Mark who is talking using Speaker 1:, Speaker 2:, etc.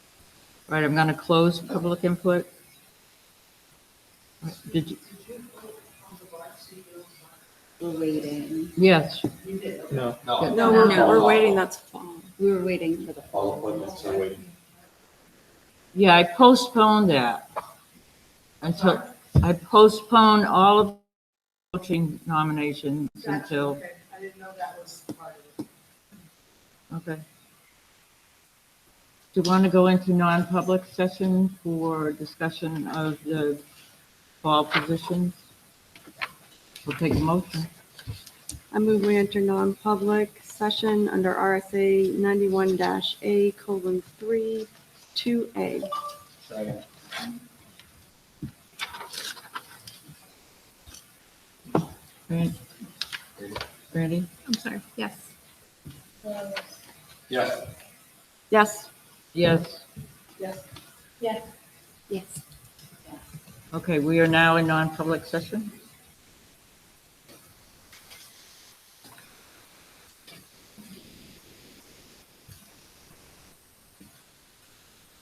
Speaker 1: All right, I'm going to close public input. Did you,
Speaker 2: We're waiting.
Speaker 1: yes,
Speaker 3: No.
Speaker 4: No, we're,
Speaker 2: No.
Speaker 4: we're waiting, that's fine.
Speaker 2: We were waiting for the.
Speaker 3: All appointments are waiting.
Speaker 1: yeah, I postponed that. Until, I postponed all of coaching nominations until,
Speaker 5: Okay, I didn't know that was part of it.
Speaker 1: okay. Do you want to go into non-public session for discussion of the fall positions? We'll take a motion.
Speaker 4: I move we enter non-public session under RSA ninety-one dash A colon three, two A.
Speaker 1: Fran- Brandy?
Speaker 4: I'm sorry, yes.
Speaker 3: Yes.
Speaker 4: Yes.
Speaker 1: Yes.
Speaker 5: Yes,
Speaker 2: Yes.
Speaker 1: Okay, we are now in non-public session.